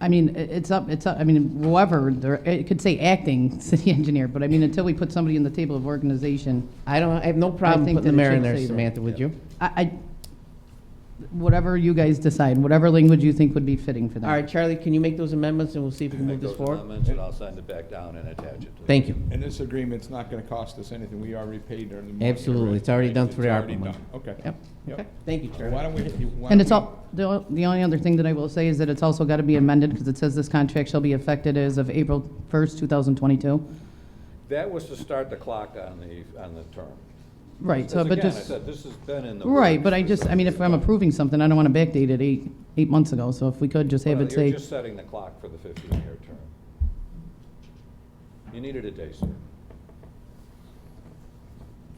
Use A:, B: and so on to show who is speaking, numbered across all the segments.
A: I mean, i- it's up, it's up, I mean, whoever, there- it could say acting city engineer, but I mean, until we put somebody in the table of organization,
B: I don't, I have no
A: I
B: problem
A: think
B: putting the
A: that it
B: mayor in
A: should
B: there,
A: say that.
B: Samantha, would you?
A: I, I, whatever you guys decide, whatever language you think would be fitting for
B: All
A: them.
B: right, Charlie, can you make those amendments, and we'll see if we can move
C: Make
B: this
C: those
B: forward?
C: amendments, and I'll send it back down and attach it to the...
B: Thank you.
D: And this agreement's not gonna cost us anything, we already paid our money. already,
B: Absolutely. It's already
D: right?
B: done through the ARPA
D: It's already
B: money.
D: done. Okay.
B: Yep. Okay. Thank you,
D: So Why
B: Charlie.
D: don't we, why don't
A: And it's
D: we-
A: all, the o- the only other thing that I will say is that it's also got to be amended, because it says this contract shall be effective as of April 1st, 2022.
C: That was to start the clock on the, on the term.
A: Right, so,
C: Because
A: but
C: again, I
A: just,
C: said, this has been in the...
A: right,
C: works
A: but I
C: for
A: just, I mean, if I'm approving something, I don't want to backdate it eight, eight months ago, so if we could just have
C: Well,
A: it say.
C: You're just setting the clock for the 15-year term. You needed a day, sir.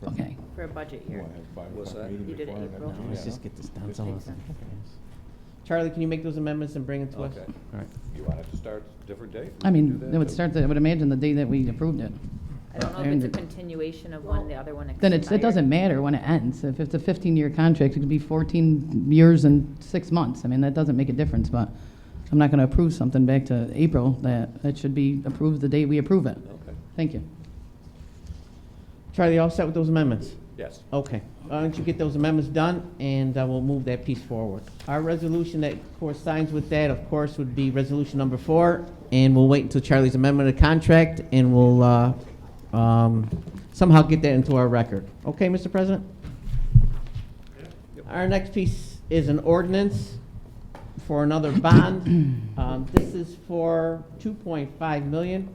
A: Okay,
E: for a budget
D: You
E: year.
D: wanna have five
C: What's
D: o'clock
C: that?
D: meeting
E: You did it
D: before that
E: April.
D: now?
E: Let's
B: Let's
D: Yeah.
B: just get this done.
D: Just
B: so
D: take
B: let's-
D: some.
B: Charlie, can you make those amendments and bring it to us?
C: Okay.
B: All right.
C: You want it to start a different date?
A: I mean,
C: Do that,
A: it would
C: too.
A: start, the- I would imagine the day that we approved it.
E: I don't know if
A: And
E: it's a continuation of one, the other one expired.
A: Then it's, it doesn't matter when it ends, if it's a 15-year contract, it could be 14 years and six months, I mean, that doesn't make a difference, but I'm not going to approve something back to April, that, it should be approved the day we approve it.
C: Okay,
A: Thank you.
B: Charlie, all set with those amendments?
C: yes.
B: Okay, why don't you get those amendments done, and uh, we'll move that piece forward. Our resolution that corresponds with that, of course, would be resolution number four, and we'll wait until Charlie's amendment of contract, and we'll uh, um, somehow get that into our record. Okay, Mr. President? Our next piece is an ordinance for another bond. Um, This is for 2.5 million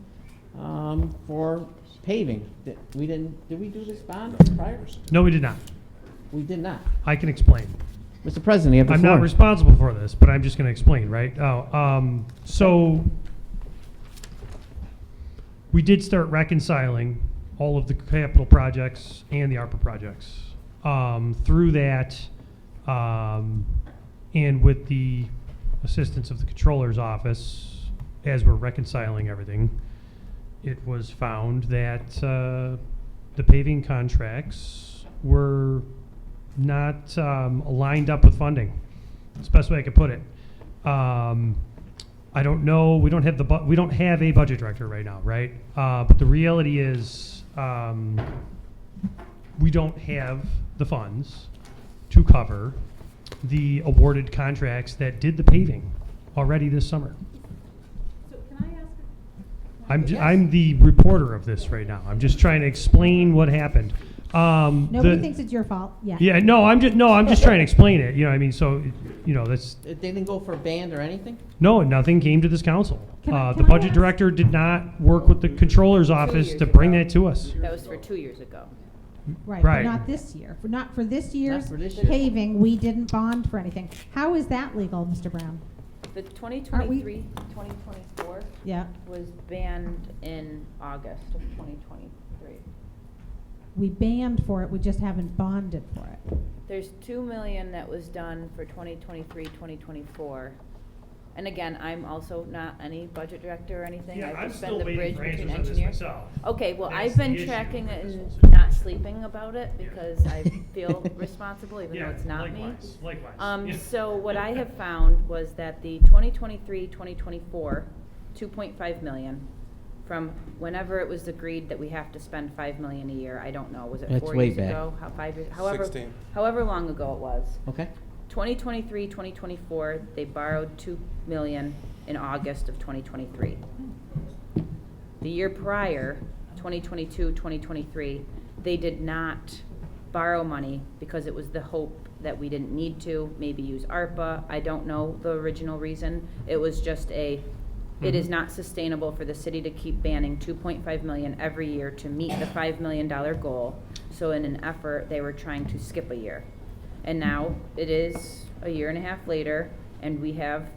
B: um, for paving. Did- We didn't, did we do this bond prior?
F: No, we did not.
B: We did not.
F: I can explain.
B: Mr. President, you have the
F: I'm
B: floor.
F: not responsible for this, but I'm just going to explain, right? Oh, um, so we did start reconciling all of the capital projects and the ARPA projects. Um, through that, um, and with the assistance of the controller's office, as we're reconciling everything, it was found that, uh, the paving contracts were not um, lined up with funding. That's the best way I could put it. Um, I don't know. We don't have the bu- we don't have a budget director right now, right? Uh, but the reality is, um, we don't have the funds to cover the awarded contracts that did the paving already this summer.
G: So can I ask,
F: I'm, j- I'm the reporter of this right now. I'm just trying to explain what happened. Um,
G: nobody
F: the-
G: thinks it's your fault, yeah.
F: yeah, no, I'm just no, I'm just trying to explain it. You know, I mean, so you know, that's
B: They didn't go for a band or anything?
F: no, nothing came to this council.
G: Can I-
F: Uh, the
G: can I
F: budget
G: ask-
F: director did not work with the controller's office
E: years
F: to bring
E: ago.
F: that to us.
E: That was for two years ago.
G: Right, but
F: Right.
G: not this year, for not for this year's
B: for this year.
G: paving, we didn't bond for anything. How is that legal, Mr. Brown?
E: The 2023, 2024
G: Yeah,
E: was banned in August of 2023.
G: we banned for it, we just haven't bonded for it.
E: There's 2 million that was done for 2023, 2024. And again, I'm also not any budget director or anything. I've just been the bridge between engineers. Okay, well,
F: That's
E: I've
F: the
E: been
F: issue
E: tracking
F: with
E: it
F: this
E: and
F: whole
E: not sleeping about it
F: Yeah.
E: because I feel responsible even though it's not me. Um, so what I have found was that the 2023, 2024, 2.5 million, from whenever it was agreed that we have to spend 5 million a year, I don't know, was it
B: That's
E: four
B: way
E: years
B: back.
E: ago? How, five years, however,
H: Sixteen.
E: however long ago it was.
B: Okay.
E: 2023, 2024, they borrowed 2 million in August of 2023. The year prior, 2022, 2023, they did not borrow money because it was the hope that we didn't need to, maybe use ARPA. I don't know the original reason. It was just a, it is not sustainable for the city to keep banning 2.5 million every year to meet the $5 million goal. So in an effort, they were trying to skip a year. And now it is a year and a half later, and we have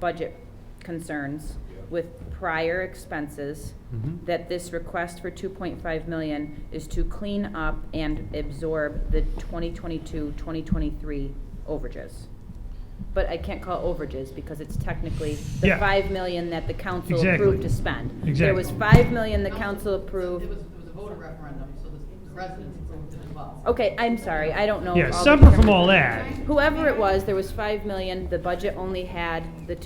E: budget concerns with prior expenses,
F: Mhm.
E: that this request for two point five million is to clean up and absorb the 2022-2023 overages. But I can't call it overages because it's technically the
F: Yeah.
E: five million that the council
F: Exactly.
E: approved to spend. There
F: Exactly.
E: was five million the council approved.
I: It was a voter referendum, so the residents approved it as well.
E: Okay, I'm sorry, I don't know.
F: Yeah,
E: all the
F: separate from
E: different-
F: all that.
E: Whoever it was, there was five million, the budget only had the